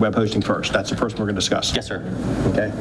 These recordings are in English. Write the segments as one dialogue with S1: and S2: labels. S1: web hosting first. That's the first one we're going to discuss.
S2: Yes, sir.
S1: Okay?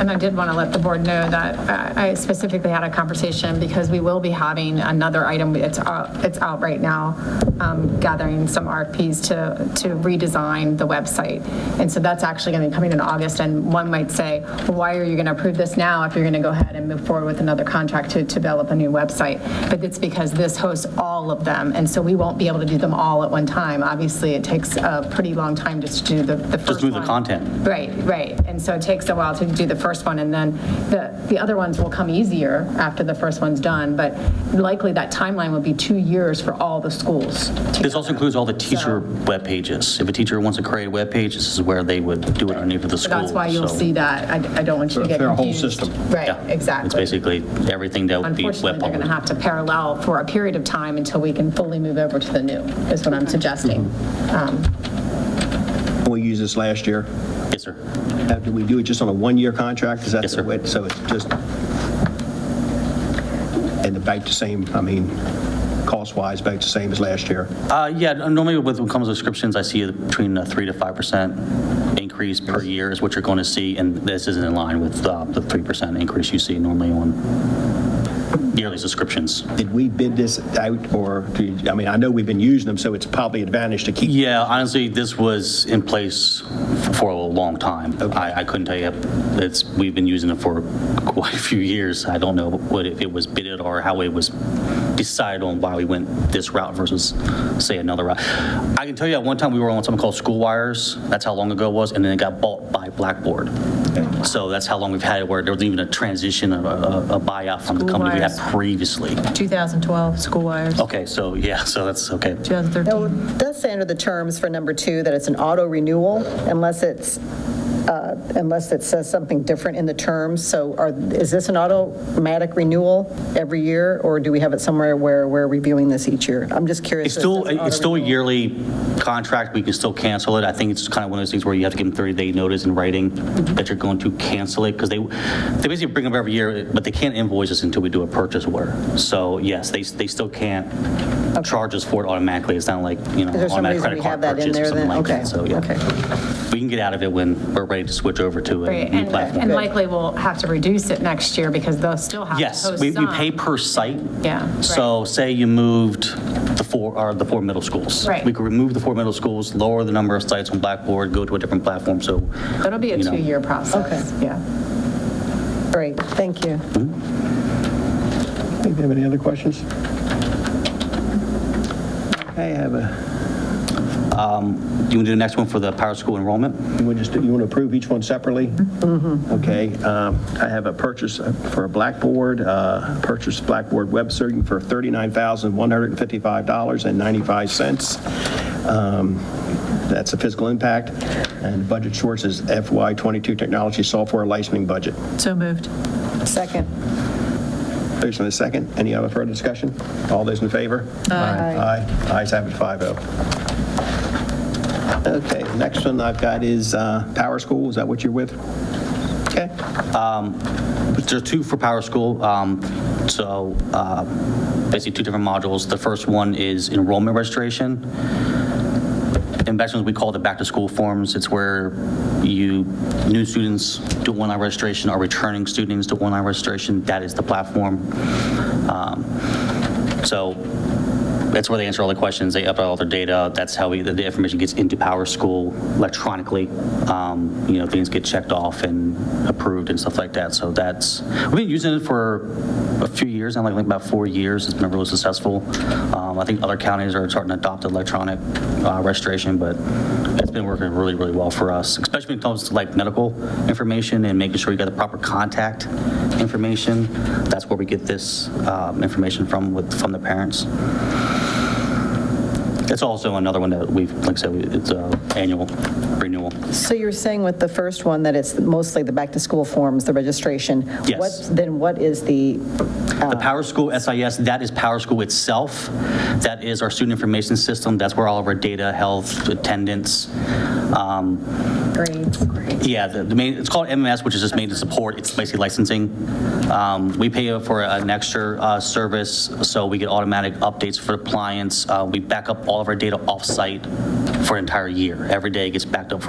S3: And I did want to let the board know that uh, I specifically had a conversation because we will be having another item, it's out, it's out right now, um, gathering some RFPs to, to redesign the website. And so that's actually going to be coming in August, and one might say, "Well, why are you going to approve this now if you're going to go ahead and move forward with another contract to to develop a new website? But it's because this hosts all of them, and so we won't be able to do them all at one time. Obviously, it takes a pretty long time just to do the the first
S2: Just do the
S3: one.
S2: content.
S3: Right, right. And so it takes a while to do the first one, and then the, the other ones will come easier after the first one's done, but likely that timeline will be two years for all the schools.
S2: This also includes all the teacher web pages. If a teacher wants to create a web page, this is where they would do it underneath of the school.
S3: That's why you'll
S2: so-
S3: see that. I, I don't want you to get confused.
S1: Their whole system.
S3: Right,
S2: Yeah. It's
S3: exactly.
S2: basically everything that would be web
S3: Unfortunately, they're going to
S2: published.
S3: have to parallel for a period of time until we can fully move over to the new, is what I'm suggesting.
S2: Mm-hmm.
S1: We used this last year.
S2: Yes, sir.
S1: Uh, Did we do it just on a one-year contract? Is that
S2: Yes,
S1: the
S2: sir.
S1: way- So it's just, and the back the same, I mean, cost-wise, back the same as last year.
S2: Uh, Yeah, normally with when it comes to subscriptions, I see between a 3 to 5% increase per year is what you're going to see, and this isn't in line with uh, the 3% increase you see normally on yearly subscriptions.
S1: Did we bid this out, or, do you- I mean, I know we've been using them, so it's probably advantage to keep.
S2: Yeah, honestly, this was in place for a long time. I I couldn't tell you, it's, we've been using it for quite a few years. I don't know what, if it was bidded or how it was decided on why we went this route versus, say, another route. I can tell you, at one time, we were on something called School Wires. That's how long ago it was, and then it got bought by Blackboard. So that's how long we've had it, where there wasn't even a transition, a- a a buyout from the
S4: School
S2: company we had
S4: Wires.
S2: previously.
S4: 2012, school wires,
S2: Okay, so, yeah, so that's, okay.
S4: 2013.
S5: So it does say under the terms for number two that it's an auto renewal unless it's, uh, unless it says something different in the terms. So are, is this an automatic renewal every year, or do we have it somewhere where we're reviewing this each year? I'm just curious.
S2: It's still,
S5: It says
S2: it's still a
S5: auto renewal.
S2: yearly contract, we can still cancel it. I think it's kind of one of those things where you have to give them 30-day notice in writing that you're going to cancel it, because they, they basically bring them every year, but they can't invoice us until we do a purchase order. So yes, they, they still can't charge us for it automatically, it's not like, you know,
S5: Is there some
S2: automatic
S5: reason we
S2: credit
S5: have
S2: card
S5: that in
S2: purchase or
S5: there
S2: something
S5: then?
S2: like
S5: Okay,
S2: that, so yeah.
S5: okay.
S2: We can get out of it when we're ready to switch over to a
S3: Right,
S2: new
S3: and,
S2: platform.
S3: and likely we'll have to reduce it next year because they'll still have to
S2: Yes,
S3: host
S2: we, we
S3: some.
S2: pay per site.
S3: Yeah, right.
S2: So say you moved the four, or the four middle schools.
S3: Right.
S2: We could remove the four middle schools, lower the number of sites on Blackboard, go to a different platform, so.
S3: It'll be a
S2: you know.
S3: two-year process, yeah.
S5: Great, thank you.
S1: Do you have any other questions? I have a,
S2: You want to do the next one for the power school enrollment?
S1: you want to just, you want to approve each one separately? Mm-hmm. Okay, um, I have a purchase uh, for a Blackboard, uh, purchase Blackboard web serving for $39,155.95. Um, That's a fiscal impact, and the budget source is FY22 technology software licensing budget.
S4: So moved.
S2: Mm-hmm.
S5: Second.
S1: Motion and a second. Any other further discussion? All those in favor? Aye. Aye. Ayes have it, 5-0. Okay, next one I've got is uh, Power School. Is that what you're with? Okay.
S2: There are two for power school, um, so uh, basically two different modules. The first one is enrollment registration. in Bachelor's, we call it the back-to-school forms. It's where you, new students do online registration, or returning students do online registration. That is the platform. Um, So that's where they answer all the questions, they upload all their data, that's how we- the the information gets into Power School electronically. Um, You know, things get checked off and approved and stuff like that, so that's, we've been using it for a few years, now, like like about four years, it's been really successful. Um, I think other counties are starting to adopt electronic uh, registration, but it's been working really, really well for us, especially when it comes to like medical information and making sure you got the proper contact information. That's where we get this um, information from, with from the parents. It's also another one that we've, like I said, we- it's a annual renewal.
S5: So you're saying with the first one that it's mostly the back-to-school forms, the registration?
S2: Yes.
S5: What- Then what is the,
S2: The Power School SIS, that is Power School itself. That is our student information system. That's where all of our data, health, attendance, um,
S3: grades.
S2: Yeah, the the main, it's called MMS, which is just maintenance support. It's basically licensing. Um, We pay for an extra uh, service, so we get automatic updates for clients. Uh, We back up all of our data off-site for an entire year. Every day gets backed up for